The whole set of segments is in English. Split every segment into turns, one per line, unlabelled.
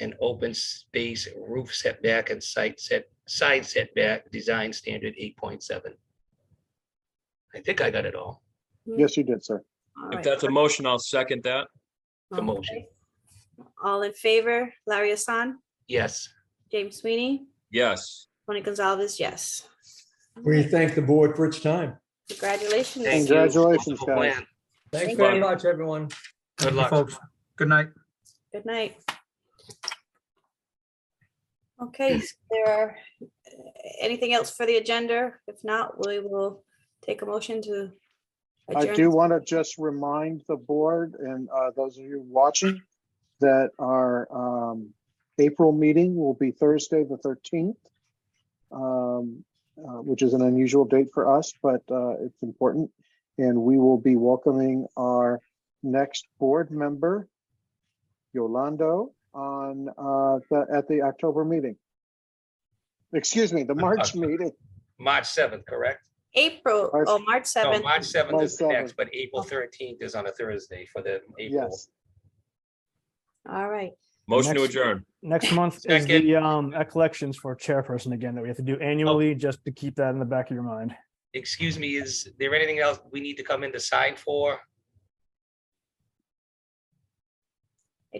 and open space roof setback and site set, side setback, design standard eight point seven. I think I got it all,
Yes, you did, sir.
All
If
right.
that's a motion, I'll second that.
the motion.
Okay. All in favor, Larry Hassan,
Yes,
James Sweeney,
Yes.
Tony Gonzalez, yes.
We thank the board for its time.
Congratulations.
thank you.
Congratulations,
Wonderful
guys.
plan.
Thanks
Thank
very
you.
much, everyone.
Good
Thank you,
luck.
folks. Good night.
Good night. Okay, is there are, uh, anything else for the agenda? If not, we will take a motion to
I
adjourn.
do want to just remind the board and uh, those of you watching that our um, April meeting will be Thursday, the 13th, um, uh, which is an unusual date for us, but uh, it's important. And we will be welcoming our next board member, Yolando, on, uh, the- at the October meeting. Excuse me, the March
October.
meeting.
March seventh, correct?
April,
I-
oh, March
No,
7th.
March seventh is the
March
next, but April thirteenth is on a Thursday for the April.
Yes,
All right,
Motion to
Next.
adjourn.
Next month is
Second.
the um collections for chairperson again that we have to do annually, just to keep that in the back of your mind.
Excuse me, is there anything else we need to come in to sign for?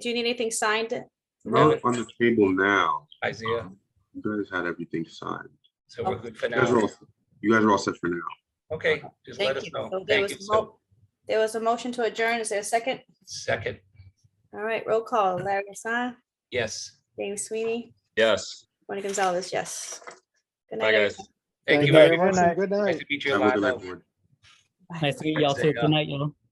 do you need anything signed?
I have
Roy?
it on the table now.
Isaiah,
Um, You guys had everything signed.
so we're good for
You guys are
now.
all, you guys are all set for now.
Okay, just let
Thank
us
you.
know.
So there
Thank
was
you.
a mo-
So,
There was a motion to adjourn. Is there a second?
second,
All right, roll call. Larry Hassan,
yes.
James Sweeney,
Yes.
Tony Gonzalez, yes. Good
Bye,
night.
guys.
Thank you
very
very
much.
much.
and Good night.
Nice to meet you,
Have a good night,
Lionel.
board.
everyone.
Nice to meet y'all
Thanks,
too.
Jake.
Good night, y'all.